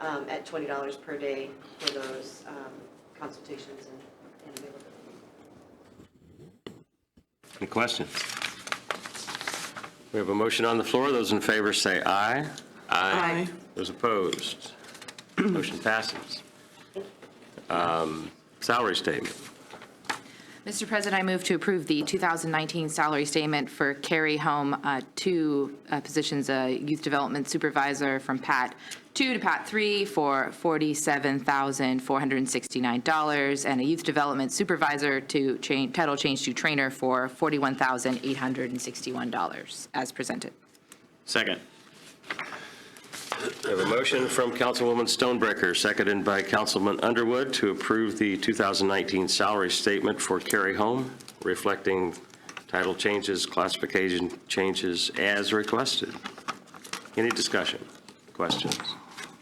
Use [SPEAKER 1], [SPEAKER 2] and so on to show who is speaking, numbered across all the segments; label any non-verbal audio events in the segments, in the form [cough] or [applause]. [SPEAKER 1] um, at twenty dollars per day for those, um, consultations and, and availability.
[SPEAKER 2] Any questions? We have a motion on the floor. Those in favor say aye.
[SPEAKER 3] Aye.
[SPEAKER 2] Those opposed? Motion passes. Um, Salary statement.
[SPEAKER 4] Mr. President, I move to approve the 2019 salary statement for Carrie Home, uh, two uh, positions, a youth development supervisor from Pat 2 to Pat 3 for $47,469, and a youth development supervisor to change, title change to trainer for $41,861, as presented.
[SPEAKER 2] Second. We have a motion from Councilwoman Stonebreaker, seconded by Councilman Underwood, to approve the 2019 salary statement for Carrie Home, reflecting title changes, classification changes as requested. Any discussion? Questions?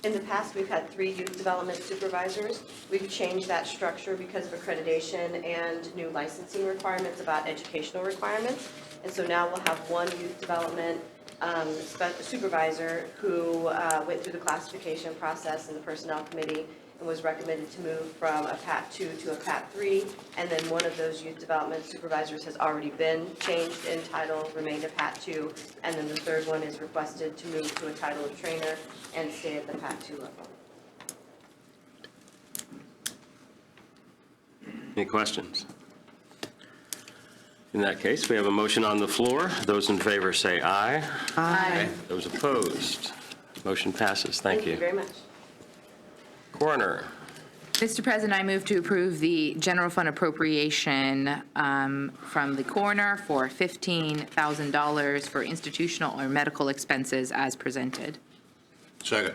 [SPEAKER 1] In the past, we've had three youth development supervisors. We've changed that structure because of accreditation and new licensing requirements about educational requirements. And so now we'll have one youth development um, spe- supervisor who uh, went through the classification process in the personnel committee and was recommended to move from a PAT 2 to a PAT 3. And then one of those youth development supervisors has already been changed in title, remained a PAT 2. And then the third one is requested to move to a title of trainer and stay at the PAT 2 level.
[SPEAKER 2] Any questions? In that case, we have a motion on the floor. Those in favor say aye.
[SPEAKER 4] Aye.
[SPEAKER 2] Those opposed, motion passes. Thank
[SPEAKER 1] Thank you
[SPEAKER 2] you.
[SPEAKER 1] very much.
[SPEAKER 2] Coroner,
[SPEAKER 4] Mr. President, I move to approve the general fund appropriation um, from the coroner for $15,000 for institutional or medical expenses as presented.
[SPEAKER 5] Second.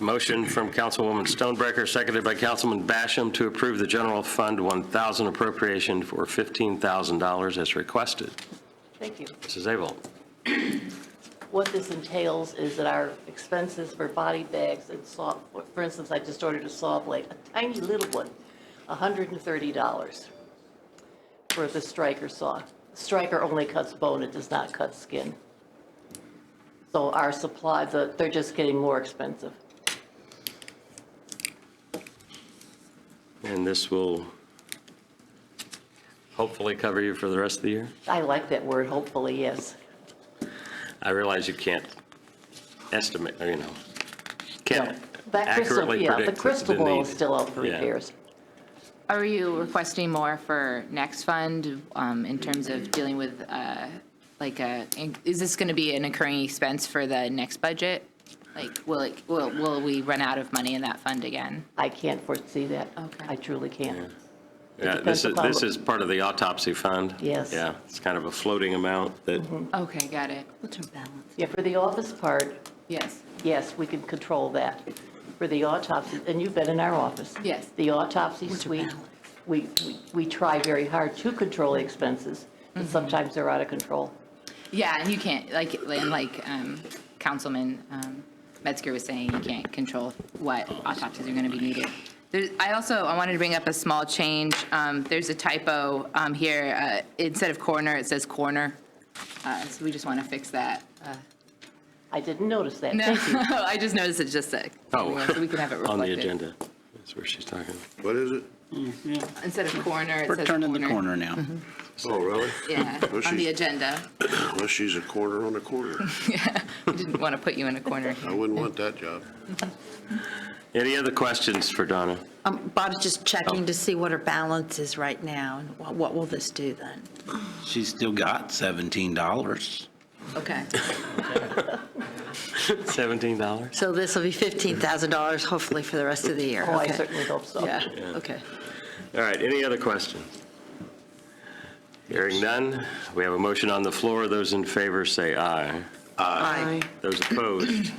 [SPEAKER 2] Motion from Councilwoman Stonebreaker, seconded by Councilman Basham, to approve the general fund 1,000 appropriation for $15,000 as requested.
[SPEAKER 6] Thank you.
[SPEAKER 2] Mrs. Abel,
[SPEAKER 6] What this entails is that our expenses for body bags and saw, for instance, I just ordered a saw blade, a tiny little one, $130 for the striker saw. Striker only cuts bone, it does not cut skin. So our supply, the- they're just getting more expensive.
[SPEAKER 2] and this will hopefully cover you for the rest of the year?
[SPEAKER 6] I like that word, hopefully, yes.
[SPEAKER 2] I realize you can't estimate, you know, can't
[SPEAKER 6] That crystal-
[SPEAKER 2] accurately
[SPEAKER 6] yeah,
[SPEAKER 2] predict
[SPEAKER 6] The crystal ball is
[SPEAKER 2] need.
[SPEAKER 6] still out for
[SPEAKER 2] Yeah.
[SPEAKER 6] repairs.
[SPEAKER 4] Are you requesting more for next fund um, in terms of dealing with, uh, like, a- is this going to be an occurring expense for the next budget? Like, will it, will will we run out of money in that fund again?
[SPEAKER 6] I can't foresee that.
[SPEAKER 4] Okay.
[SPEAKER 6] I truly can't.
[SPEAKER 2] Yeah, this is,
[SPEAKER 6] depends upon
[SPEAKER 2] this
[SPEAKER 6] what-
[SPEAKER 2] is part of the autopsy fund.
[SPEAKER 6] Yes. Mm-hmm.
[SPEAKER 2] Yeah, it's kind of a floating amount that,
[SPEAKER 4] Okay, got it.
[SPEAKER 6] Yeah, for the office part,
[SPEAKER 4] Yes.
[SPEAKER 6] yes, we can control that. For the autopsy, and you've been in our office.
[SPEAKER 4] Yes.
[SPEAKER 6] The autopsy suite, we, we- we try very hard to control the expenses, but sometimes they're out of control.
[SPEAKER 4] Yeah, and you can't, like, and like um, Councilman um, Metzger was saying, you can't control what autopsies are going to be needed. There- I also, I wanted to bring up a small change. Um, There's a typo um, here. Uh, Instead of coroner, it says coroner. Uh, So we just want to fix that. Uh,
[SPEAKER 6] I didn't notice that.
[SPEAKER 4] No,
[SPEAKER 6] Thank you.
[SPEAKER 4] [laughs] I just noticed it just said.
[SPEAKER 2] oh,
[SPEAKER 4] So we can have it
[SPEAKER 2] [laughs]
[SPEAKER 4] reflected.
[SPEAKER 2] on the agenda. That's where she's talking.
[SPEAKER 5] What is it?
[SPEAKER 4] Instead of coroner, it
[SPEAKER 7] We're
[SPEAKER 4] says Mm-hmm.
[SPEAKER 7] turning the corner now.
[SPEAKER 5] Oh, really?
[SPEAKER 4] Yeah,
[SPEAKER 5] Well,
[SPEAKER 4] on the
[SPEAKER 5] she's-
[SPEAKER 4] agenda.
[SPEAKER 5] Unless she's a corner on a corner.
[SPEAKER 4] Didn't want to put you in a
[SPEAKER 2] [laughs]
[SPEAKER 4] corner
[SPEAKER 5] I
[SPEAKER 4] here.
[SPEAKER 5] wouldn't want that job.
[SPEAKER 2] Any other questions for Donna?
[SPEAKER 3] Um, Bob's just checking to see what her balance is right now, and wha- what will this do then?
[SPEAKER 7] She's still got $17.
[SPEAKER 4] Okay.
[SPEAKER 2] $17?
[SPEAKER 3] So this will be $15,000 hopefully for the rest of the year.
[SPEAKER 6] Oh, I
[SPEAKER 3] Okay.
[SPEAKER 6] certainly hope so.
[SPEAKER 3] Yeah, okay.
[SPEAKER 2] All right, any other questions? Hearing none, we have a motion on the floor. Those in favor say aye.
[SPEAKER 3] Aye.
[SPEAKER 2] Those opposed,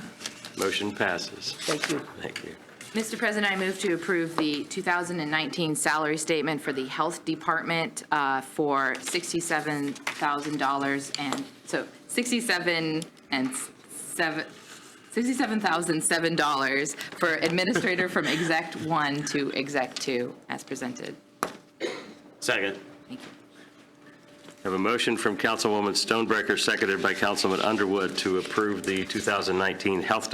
[SPEAKER 2] motion passes.
[SPEAKER 6] Thank you.
[SPEAKER 2] Thank you.
[SPEAKER 4] Mr. President, I move to approve the 2019 salary statement for the Health Department uh, for $67,000 and, so 67 and seven, $67,007 for administrator from exec one to exec two as presented.
[SPEAKER 2] Second. Have a motion from Councilwoman Stonebreaker, seconded by Councilman Underwood, to approve the 2019 Health